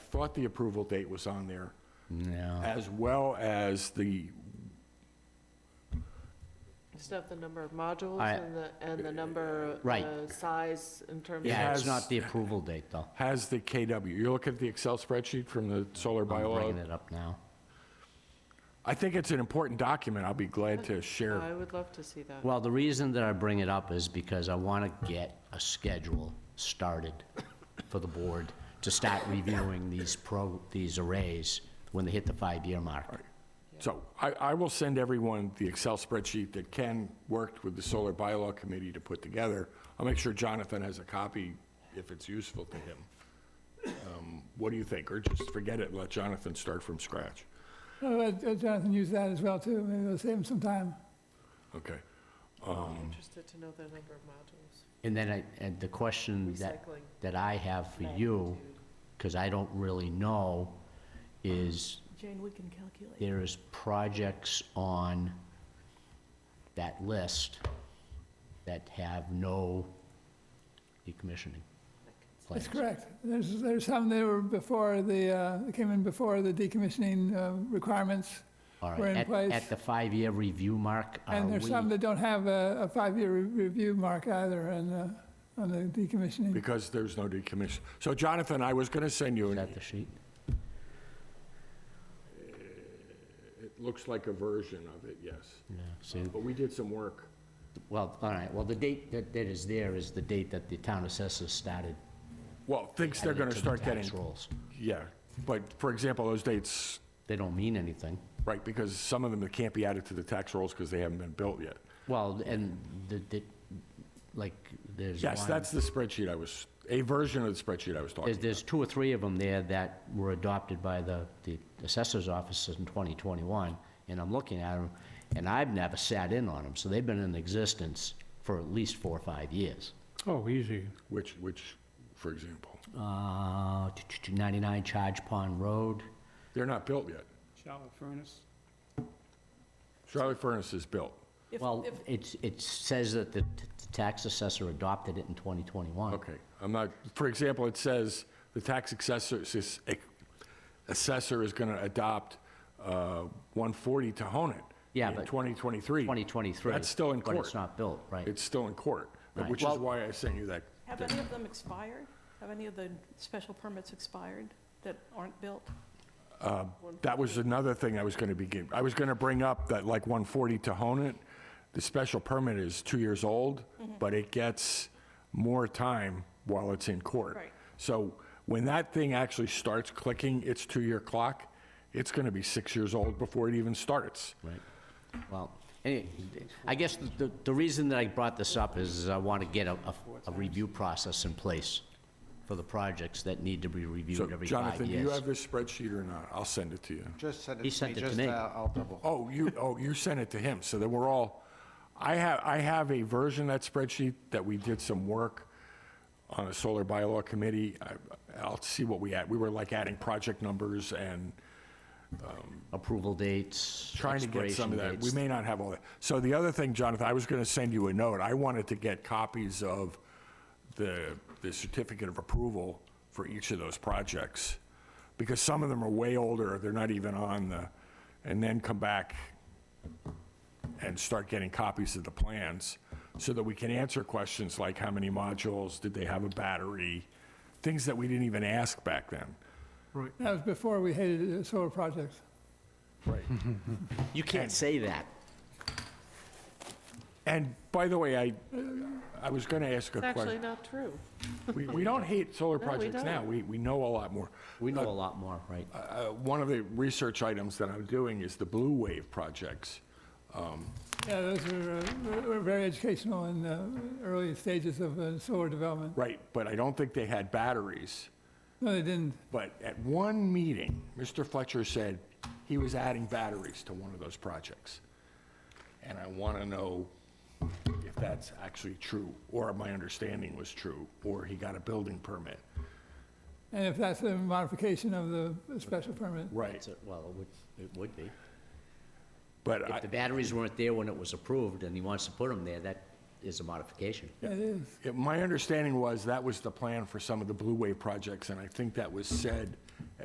thought the approval date was on there, No. as well as the, Just have the number of modules I- and the, and the number, Right. uh, size in terms of. Yeah, has- it's not the approval date, though. has the KW. You look at the Excel spreadsheet from the solar I'm bringing bylaw. it up now. I think it's an important document. I'll be glad to share. I would love to see that. Well, the reason that I bring it up is because I want to get a schedule started for the board to start reviewing these pro, these arrays when they hit the five-year mark. So I, I will send everyone the Excel spreadsheet that Ken worked with the Solar Bylaw Committee to put together. I'll make sure Jonathan has a copy if it's useful to him. Um, What do you think? Or just forget it, and let Jonathan start from scratch? I'll let uh, Jonathan use that as well, too. Maybe it'll save him some time. Okay. I'm interested to know the number of modules, And then I, and the question that, recycling. that I have for you, because I don't really know, is Jane, we can calculate. there is projects on that list that have no decommissioning plans. That's correct. There's, there's some that were before the, uh, that came in before the decommissioning uh, requirements, All We're right, in at, place. at the five-year review mark, are and there's some Ah, we, that don't have a, a five-year re- review mark either on, uh, on the decommissioning. Because there's no decommission. So Jonathan, I was going to send you, is and that it the sheet? looks like a version of it, yes. Yeah, see, But we did some work. well, all right, well, the date that, that is there is the date that the town assessors started. Well, thinks they're adding going to to the start tax getting, rolls. yeah. But for example, those dates, They don't mean anything. right, because some of them that can't be added to the tax rolls because they haven't been built yet. Well, and the, the, like, there's Yes, one- that's the spreadsheet I was, a version of the spreadsheet I was talking There's, about. there's two or three of them there that were adopted by the, the assessor's office in 2021, and I'm looking at them, and I've never sat in on them, so they've been in existence for at least four or five years. Oh, easy. Which, which, for example, Uh, 99 Charge Pond Road, they're not built yet. Shallow furnace. Charlotte Furnace is built. If- well, if- it's, it says that the t- t- tax assessor adopted it in 2021. Okay, I'm not, for example, it says the tax assessor, says, eh, assessor is going to adopt uh, 140 to hone it. Yeah, In but 2023. 2023. That's still in But court. it's not built, right? It's still in court, Right. which is why I sent you that. Have any of them expired? Have any of the special permits expired that aren't built? That was another thing I was going to begin, I was going to bring up that like 140 to hone it, the special permit is two years old, but it gets more time while it's in court. Right. So when that thing actually starts clicking its two-year clock, it's going to be six years old before it even starts. Right. Well, any- I guess the, the reason that I brought this up is I want to get a, a- a review process in place for the projects that need to be So reviewed every five Jonathan, do you years. have this spreadsheet or not? I'll send it to you. Just send He it to sent me, it to just, me. uh, I'll double. Oh, you, oh, you sent it to him, so that we're all, I have, I have a version of that spreadsheet that we did some work on a solar bylaw committee. I- I'll see what we add. We were like adding project numbers and Approval dates, trying to get some expiration of that. We dates. may not have all that. So the other thing, Jonathan, I was going to send you a note. I wanted to get copies of the, the certificate of approval for each of those projects, because some of them are way older, they're not even on the, and then come back and start getting copies of the plans, so that we can answer questions like how many modules, did they have a battery, things that we didn't even ask back then. That was before we hated uh, solar projects. Right. You can't say that. And by the way, I, I was going to ask a It's actually question. not true. We, we don't hate solar No, we projects now. don't. We, we know a lot more. We know a lot more, right? Uh, One of the research items that I'm doing is the Blue Wave projects. Yeah, those were, uh, were- were very educational in the early stages of uh, solar development. Right, but I don't think they had batteries. No, they didn't. But at one meeting, Mr. Fletcher said he was adding batteries to one of those projects. And I want to know if that's actually true, or my understanding was true, or he got a building permit. And if that's a modification of the special permit. Right, It's a- Well, it would, it would be. but I. If the batteries weren't there when it was approved and he wants to put them there, that is a modification. It is. Yeah, My understanding was that was the plan for some of the Blue Wave projects, and I think that was said